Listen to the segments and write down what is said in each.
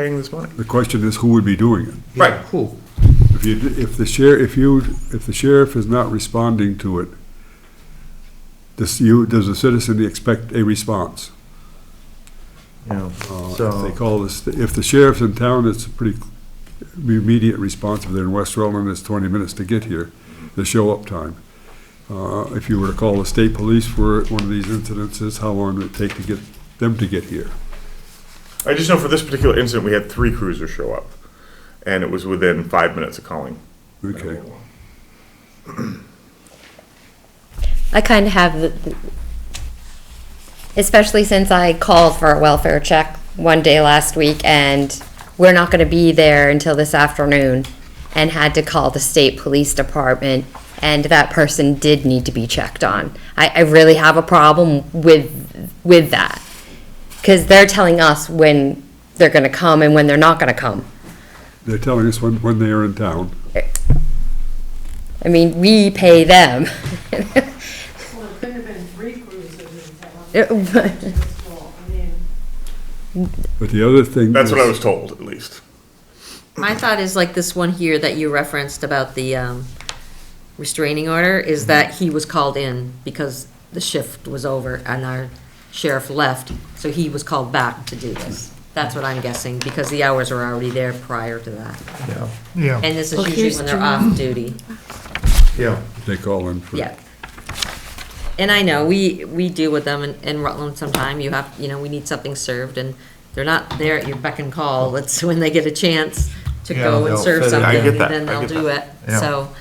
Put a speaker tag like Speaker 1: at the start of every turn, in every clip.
Speaker 1: paying this money.
Speaker 2: The question is, who would be doing it?
Speaker 1: Right.
Speaker 3: Who?
Speaker 2: If you, if the sheriff, if you, if the sheriff is not responding to it, does you, does the citizen expect a response?
Speaker 3: Yeah,
Speaker 2: Uh, If they
Speaker 3: so,
Speaker 2: call this, if the sheriff's in town, it's a pretty immediate response. If they're in West Rutland, it's twenty minutes to get here, the show-up time. Uh, If you were to call the state police for one of these incidences, how long would it take to get them to get here?
Speaker 1: I just know for this particular incident, we had three cruisers show up, and it was within five minutes of calling.
Speaker 2: Okay.
Speaker 4: I kind of have, the- the- especially since I called for a welfare check one day last week and we're not going to be there until this afternoon and had to call the state police department and that person did need to be checked on. I, I really have a problem with, with that. Because they're telling us when they're going to come and when they're not going to come.
Speaker 2: They're telling us when, when they are in town.
Speaker 4: I mean, we pay them.
Speaker 5: Well, it couldn't have been three cruises in
Speaker 4: It-
Speaker 5: town. That's all. I mean,
Speaker 2: But the other thing.
Speaker 1: That's what
Speaker 2: is-
Speaker 1: I was told, at least.
Speaker 6: My thought is like this one here that you referenced about the um, restraining order, is that he was called in because the shift was over and our sheriff left, so he was called back to do this. That's what I'm guessing, because the hours were already there prior to that.
Speaker 3: yeah,
Speaker 6: And this is usually when they're off duty,
Speaker 3: yeah.
Speaker 2: They call in for.
Speaker 6: yeah. And I know, we, we deal with them in- in Rutland sometime, you have, you know, we need something served, and they're not there at your beck and call, it's when they get a chance to
Speaker 3: Yeah,
Speaker 6: go and
Speaker 3: they'll fit
Speaker 6: serve
Speaker 3: in.
Speaker 6: something,
Speaker 3: I
Speaker 1: get
Speaker 6: and
Speaker 1: that,
Speaker 6: then
Speaker 1: I
Speaker 6: they'll
Speaker 1: get
Speaker 6: do it,
Speaker 1: that.
Speaker 3: Yeah.
Speaker 6: so.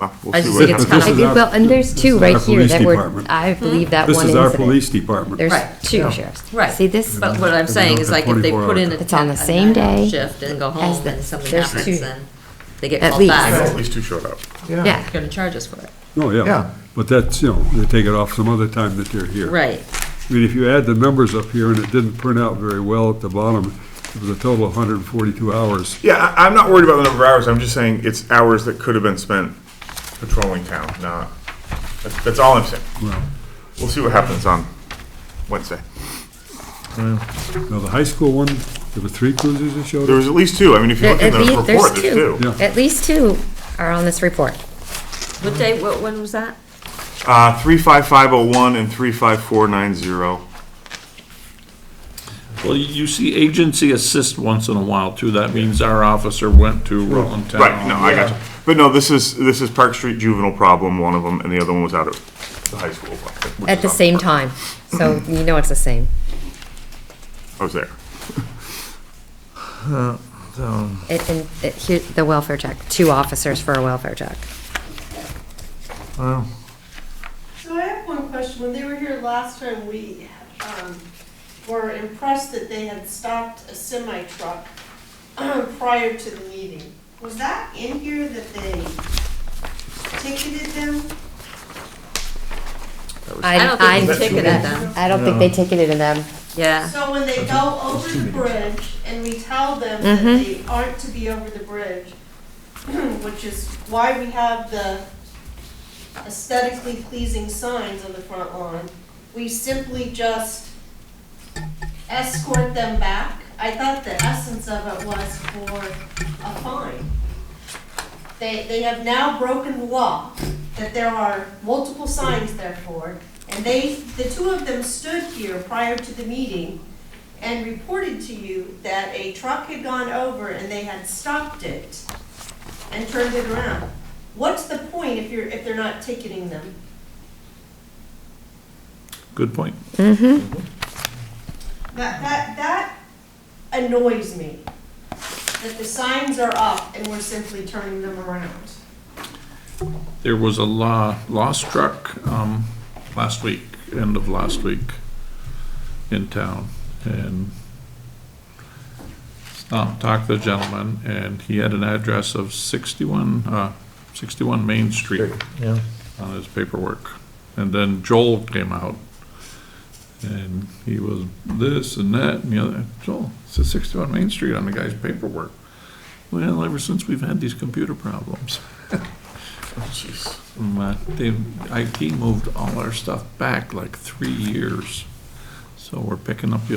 Speaker 1: Well, we'll
Speaker 6: I
Speaker 1: see
Speaker 6: just
Speaker 1: what
Speaker 6: think it's
Speaker 1: happens.
Speaker 2: This
Speaker 4: I
Speaker 2: is
Speaker 4: do,
Speaker 2: our-
Speaker 4: well, and there's
Speaker 2: this
Speaker 4: two
Speaker 2: is
Speaker 4: right
Speaker 2: our
Speaker 4: here
Speaker 2: police
Speaker 4: that were,
Speaker 2: department.
Speaker 4: I believe that
Speaker 2: This
Speaker 4: one
Speaker 2: is our
Speaker 4: incident.
Speaker 2: police department.
Speaker 4: There's
Speaker 6: Right,
Speaker 4: two
Speaker 3: yeah.
Speaker 4: sheriffs.
Speaker 6: Right.
Speaker 4: See this?
Speaker 6: But what I'm saying is like if they put in a.
Speaker 4: It's on the
Speaker 6: a
Speaker 4: same
Speaker 6: nine-hour
Speaker 4: day
Speaker 6: Shift and go
Speaker 4: as
Speaker 6: home
Speaker 4: the-
Speaker 6: and something
Speaker 4: there's two.
Speaker 6: happens, then they get
Speaker 4: At
Speaker 6: called
Speaker 4: least.
Speaker 1: I
Speaker 6: back.
Speaker 1: know
Speaker 6: They're
Speaker 1: at least two showed up.
Speaker 4: Yeah,
Speaker 6: gonna charge us for it.
Speaker 2: Oh,
Speaker 3: Yeah.
Speaker 2: yeah. But that's, you know, they take it off some other time that they're here.
Speaker 6: Right,
Speaker 2: I mean, if you add the numbers up here, and it didn't print out very well at the bottom, it was a total of 142 hours.
Speaker 1: Yeah, I, I'm not worried about the number of hours. I'm just saying it's hours that could have been spent patrolling town, not, that's, that's all I'm saying.
Speaker 2: Well,
Speaker 1: We'll see what happens on Wednesday.
Speaker 2: now, the high school one, there were three cruisers that showed
Speaker 1: There
Speaker 2: up?
Speaker 1: was at least two. I mean, if you
Speaker 4: There-
Speaker 1: look in the
Speaker 4: at least-
Speaker 1: report,
Speaker 4: there's
Speaker 1: there's two.
Speaker 2: Yeah.
Speaker 4: at least two are on this report.
Speaker 6: what day, what, when was that?
Speaker 1: Uh, three five five oh one and three five four nine zero.
Speaker 7: Well, you see agency assist once in a while too. That means our officer went to Rutland Town.
Speaker 1: Right, no, I got you. But no, this is, this is Park Street juvenile problem, one of them, and the other one was out at the high school. which
Speaker 4: At
Speaker 1: is
Speaker 4: the
Speaker 1: on-
Speaker 4: same time, so
Speaker 2: Mm-hmm.
Speaker 4: you know it's the same.
Speaker 1: I was there.
Speaker 4: It, and, it, here, the welfare check, two officers for a welfare check.
Speaker 5: So I have one question. When they were here last time, we um, were impressed that they had stopped a semi truck prior to the meeting. Was that in here that they ticketed them?
Speaker 6: I don't think they ticketed them.
Speaker 4: I don't think they ticketed them.
Speaker 6: Yeah,
Speaker 5: So when they go over the bridge and we tell them that they aren't to be over the bridge, which is why we have the aesthetically pleasing signs on the front lawn, we simply just escort them back. I thought the essence of it was for a fine. They, they have now broken the law, that there are multiple signs therefore, and they, the two of them stood here prior to the meeting and reported to you that a truck had gone over and they had stopped it and turned it around. What's the point if you're, if they're not ticketing them?
Speaker 7: Good point.
Speaker 5: That, that, that annoys me, that the signs are up and we're simply turning them around.
Speaker 7: There was a law, lost truck, um, last week, end of last week in town. And um, talked to the gentleman and he had an address of sixty-one, uh, sixty-one Main Street
Speaker 3: Yeah.
Speaker 7: on his paperwork. And then Joel came out and he was this and that and the other. Joel, it's a sixty-one Main Street on the guy's paperwork. Well, ever since we've had these computer problems.
Speaker 1: Jeez.
Speaker 7: Um, uh, They, IT moved all our stuff back like three years. So we're picking up the